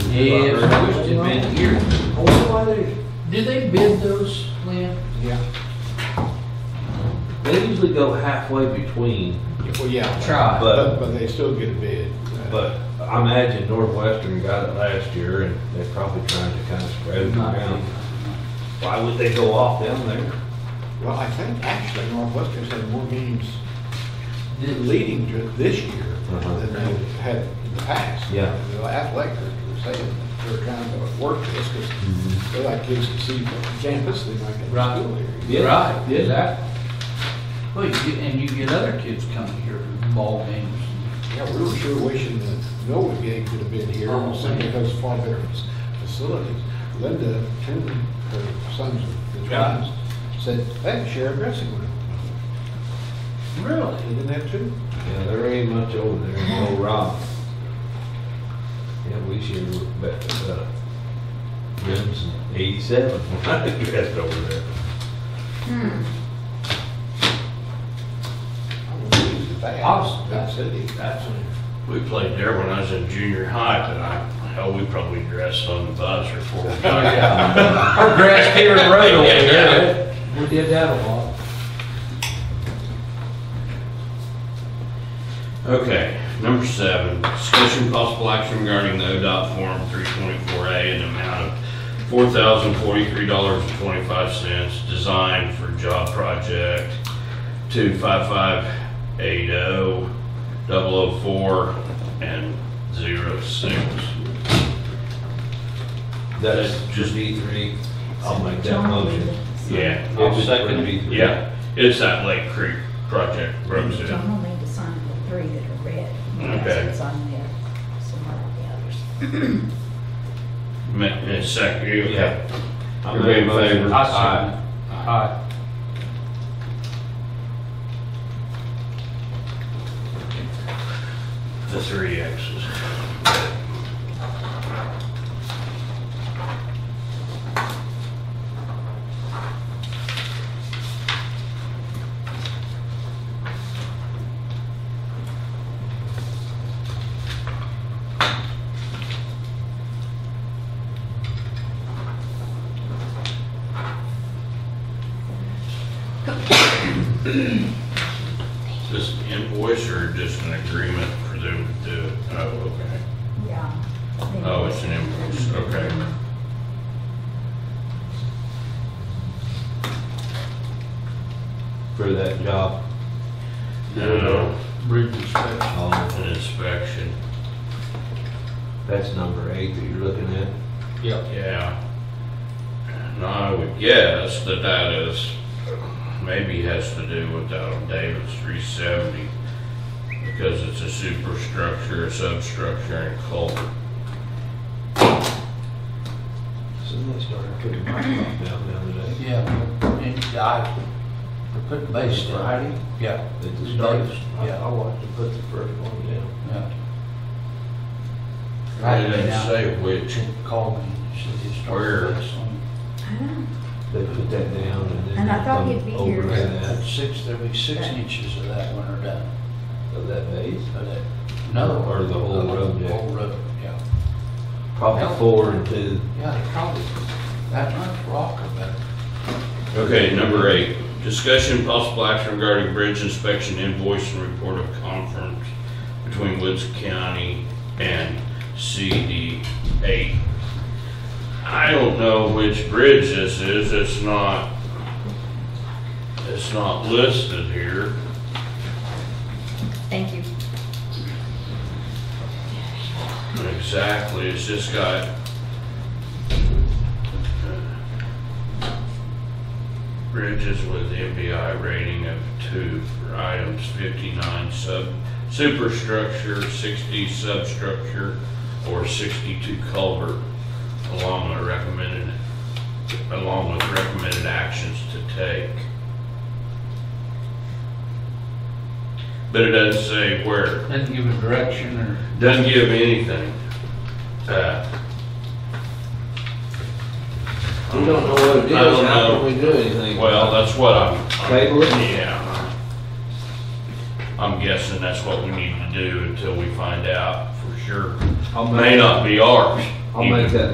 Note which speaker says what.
Speaker 1: Yeah, I wish they'd been here.
Speaker 2: I wonder why they,
Speaker 1: Do they bid those, Lynn?
Speaker 3: Yeah,
Speaker 4: They usually go halfway between,
Speaker 3: well, yeah,
Speaker 1: Try.
Speaker 4: but,
Speaker 3: but, but they still get a bid.
Speaker 4: but I imagine Northwestern got it last year and they're probably trying to kind of spread it around. Why would they go off down there?
Speaker 3: Well, I think actually Northwestern's had more games
Speaker 1: Did-
Speaker 3: leading to it this year
Speaker 4: Uh-huh.
Speaker 3: than they had in the past.
Speaker 4: Yeah.
Speaker 3: The athletic directors were saying that they're trying to work this
Speaker 4: Mm-hmm.
Speaker 3: because they like kids to see campus, they might get
Speaker 1: Right.
Speaker 3: to school here.
Speaker 4: Yeah.
Speaker 1: Right,
Speaker 4: Yeah.
Speaker 1: exactly. Well, you get, and you get other kids coming here for ball games.
Speaker 3: Yeah, we were sure wishing that Noah Gig could have been here,
Speaker 1: Oh,
Speaker 3: simply
Speaker 1: man.
Speaker 3: because of far better facilities. Linda, Tim, her sons, the
Speaker 4: Yeah.
Speaker 3: twins, said, they can share a dressing room.
Speaker 1: Really?
Speaker 3: They didn't have two.
Speaker 4: Yeah, there ain't much over there in Old Rock. Yeah, we should look back at that. Rims in eighty-seven, when I dressed over there.
Speaker 3: I was pleased at that.
Speaker 1: Awesome.
Speaker 3: That city.
Speaker 1: That's a
Speaker 5: We played there when I was in junior high, but I, hell, we probably dressed on the bus or four.
Speaker 4: Oh, Our grass here in road over there.
Speaker 1: We did that a lot.
Speaker 5: Okay, number seven, discussion possible action regarding the ODOT Form 324A in the amount of $4,043.25 designed for job project 25580-004 and 06.
Speaker 4: That's just E three. I'll make that motion.
Speaker 5: Yeah,
Speaker 4: I'll second B three.
Speaker 5: yeah, it's that Lake Creek project, Brooksville.
Speaker 6: John will need to sign the three that are red.
Speaker 5: Okay.
Speaker 6: That's what's on there, somewhere on the others.
Speaker 5: Ma- uh, Second, you okay?
Speaker 4: Yeah. I
Speaker 5: Everybody
Speaker 4: made
Speaker 5: in
Speaker 4: a motion.
Speaker 5: favor?
Speaker 4: Aye.
Speaker 1: Aye.
Speaker 5: The three X's. Just an invoice or just an agreement for them to do it? Oh, okay.
Speaker 6: Yeah.
Speaker 5: Oh, it's an invoice, okay.
Speaker 4: For that job.
Speaker 5: No,
Speaker 1: Bridge inspection.
Speaker 4: Um,
Speaker 5: Uh, an inspection,
Speaker 4: That's number eight that you're looking at.
Speaker 5: yeah. And I would guess that that is, maybe has to do with that on Davis three seventy, because it's a superstructure, a substructure, and culvert.
Speaker 4: Somebody started putting my stuff down the other day.
Speaker 1: Yeah, and I, they put the base down.
Speaker 4: Friday?
Speaker 1: Yeah.
Speaker 4: They just
Speaker 1: Davis,
Speaker 4: started, I
Speaker 1: yeah.
Speaker 4: I watched them put the first one down.
Speaker 1: yeah.
Speaker 5: It didn't say which,
Speaker 1: She called me, she said, "Just start
Speaker 5: Where?
Speaker 1: with this one."
Speaker 4: They put that down and then.
Speaker 6: And I
Speaker 4: they
Speaker 6: thought
Speaker 4: come
Speaker 6: he'd be
Speaker 4: over
Speaker 6: here.
Speaker 4: that-
Speaker 1: Six, there'll be six inches of that when they're done,
Speaker 4: Of that base,
Speaker 1: but that, no.
Speaker 4: Or the whole road, yeah.
Speaker 1: Whole road, yeah.
Speaker 4: probably four and two.
Speaker 1: Yeah, they probably, that much rock or better.
Speaker 5: Okay, number eight, discussion possible action regarding bridge inspection invoice and report of conference between Woods County and CD8. I don't know which bridge this is, it's not, it's not listed here.
Speaker 6: Thank you.
Speaker 5: Exactly, it's just got. Bridges with MBI rating of two for items fifty-nine sub, superstructure, sixty substructure, or sixty-two culvert, along with recommended, along with recommended actions to take. But it doesn't say where.
Speaker 1: Doesn't give a direction or.
Speaker 5: Doesn't give me anything. Uh,
Speaker 4: We don't know what it
Speaker 5: I don't
Speaker 4: is, how can
Speaker 5: know.
Speaker 4: we do anything?
Speaker 5: Well, that's what I'm.
Speaker 4: Table it?
Speaker 5: Yeah. I'm guessing that's what we need to do until we find out for sure.
Speaker 4: I'll
Speaker 5: May
Speaker 4: make-
Speaker 5: not be ours.
Speaker 4: I'll make that